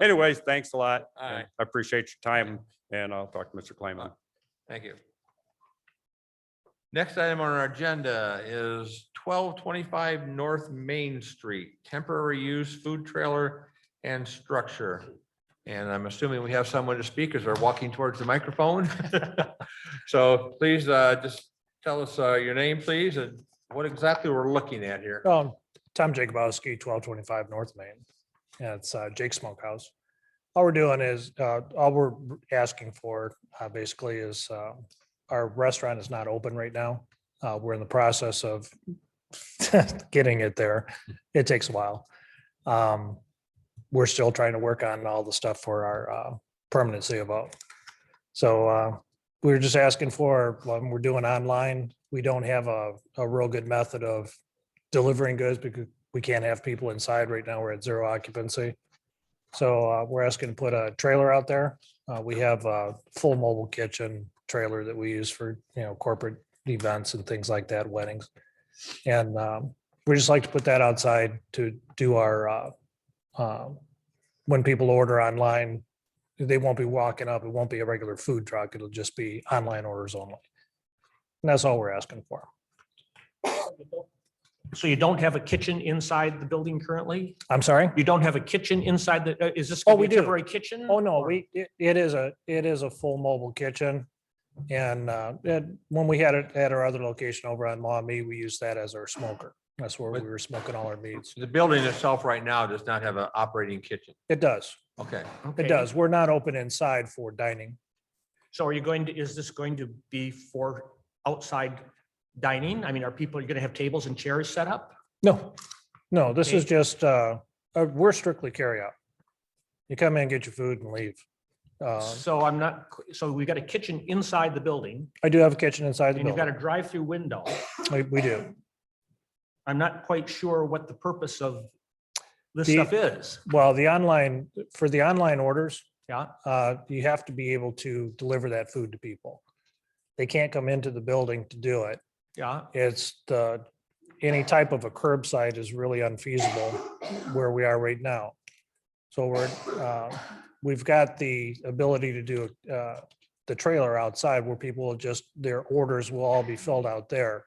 Anyways, thanks a lot. All right. I appreciate your time and I'll talk to Mr. Clayman. Thank you. Next item on our agenda is twelve twenty-five North Main Street, temporary use food trailer and structure. And I'm assuming we have someone to speak as they're walking towards the microphone. So please, uh, just tell us, uh, your name, please, and what exactly we're looking at here. Um, Tom Jacobowski, twelve twenty-five North Main. Yeah, it's uh, Jake's Smokehouse. All we're doing is, uh, all we're asking for, uh, basically is, uh, our restaurant is not open right now. Uh, we're in the process of getting it there. It takes a while. Um, we're still trying to work on all the stuff for our, uh, permanency about. So, uh, we were just asking for, um, we're doing online. We don't have a, a real good method of delivering goods because we can't have people inside right now. We're at zero occupancy. So uh, we're asking to put a trailer out there. Uh, We have a full mobile kitchen trailer that we use for, you know, corporate events and things like that, weddings. And um, we just like to put that outside to do our, uh, uh, when people order online, they won't be walking up. It won't be a regular food truck. It'll just be online orders only. And that's all we're asking for. So you don't have a kitchen inside the building currently? I'm sorry? You don't have a kitchen inside the, uh, is this? Oh, gonna be we a do. Temporary kitchen? Oh, no, or- we, it- it is a, it is a full mobile kitchen. And uh, it- when we had it at our other location over on Maumee, we used that as our smoker. That's where we But- were smoking all our meats. The building itself right now does not have an operating kitchen. It does. Okay. Okay. It does. We're not open inside for dining. So are you going to, is this going to be for outside dining? I mean, are people, are you going to have tables and chairs set up? No, no, this is Okay. just, uh, uh, we're strictly carryout. You come in, get your food and leave. Uh, So I'm not, so we've got a kitchen inside the building I do have a kitchen inside the and you've got a building. drive-through window. We- We do. I'm not quite sure what the purpose of this The- stuff is. Well, the online, for the online orders, Yeah, uh, you have to be able to deliver that food to people. They can't come into the building to do it. yeah. It's the, any type of a curbside is really unfeasible where we are right now. So we're, uh, we've got the ability to do uh, the trailer outside where people will just, their orders will all be filled out there.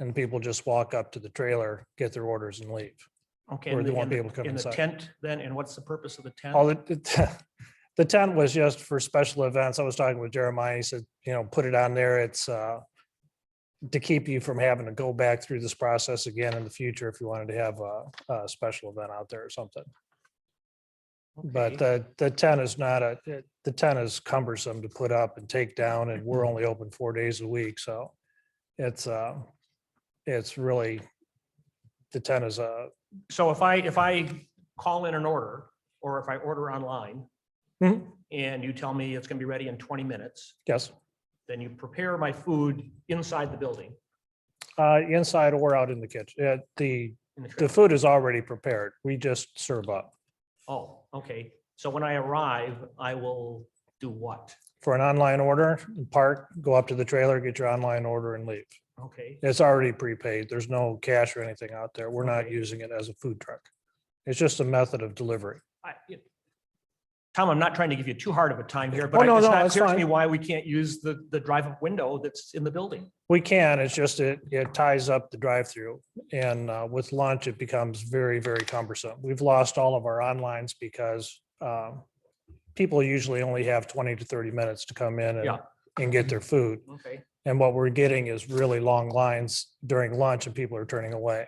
And people just walk up to the trailer, get their orders and leave. Okay. Or and they the- won't and be the- able to come And the inside. tent then, and what's the purpose of the tent? All it, the tent was just for special events. I was talking with Jeremiah. He said, you know, put it on there. It's uh to keep you from having to go back through this process again in the future if you wanted to have a, a special event out there or something. Okay. But the, the tent is not a, it- the tent is cumbersome to put up and take down and we're only open four days a week. So it's, uh, it's really, the tent is a, So if I, if I call in an order, or if I order online, Mhm. and you tell me it's gonna be ready in twenty minutes, yes, then you prepare my food inside the building. uh, inside or out in the kitchen, uh, the in the The trailer. food is already prepared. We just serve up. Oh, okay. So when I arrive, I will do what? For an online order, park, go up to the trailer, get your online order and leave. Okay, It's already prepaid. There's no cash or anything out there. We're not Okay. using it as a food truck. It's just a method of delivery. I, it- Tom, I'm not trying to give you too hard of a time here, Oh, but no, I- it's no, not that's clear to me fine. why we can't use the, the drive-up window that's in the building. We can, it's just it, it ties up the drive-through and uh, with lunch, it becomes very, very cumbersome. We've lost all of our onlines because um, people usually only have 20 to 30 minutes to come in and, Yeah. and get their food. Okay. And what we're getting is really long lines during lunch and people are turning away.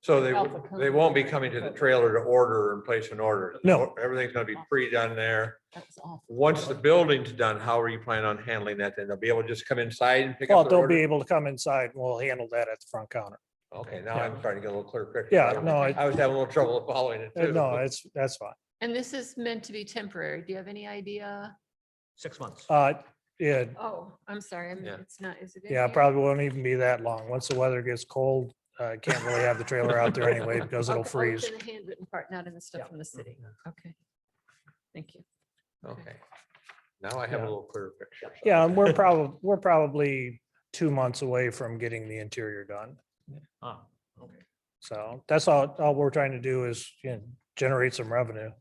So they, Alpha w- they won't be coming to the trailer to order and place an order. No. Everything's gonna be pre-done there. That was awful. Once the building's done, how are you planning on handling that? Then they'll be able to just come inside and pick Well, up the they'll be order? able to come inside and we'll handle that at the front counter. Okay, now I'm starting to get a little clearer picture. Yeah, no, I- I was having a little trouble following it Uh, too. No, it's, that's fine. And this is meant to be temporary. Do you have any idea? Six months. Uh, yeah, Oh, I'm sorry. I'm- Yeah. It's not, is it? in yeah, here? probably won't even be that long. Once the weather gets cold, uh, can't really have the trailer out there anyway because Okay, it'll oh, it's freeze. in The handwritten part, not in the Yeah. stuff from the city. Okay. Thank you. Okay. Now I have a Yeah. little clearer picture. so. Yeah, and we're probably, we're probably two months away from getting the interior done. Ah, okay. So that's all, all we're trying to do is you know, generate some revenue.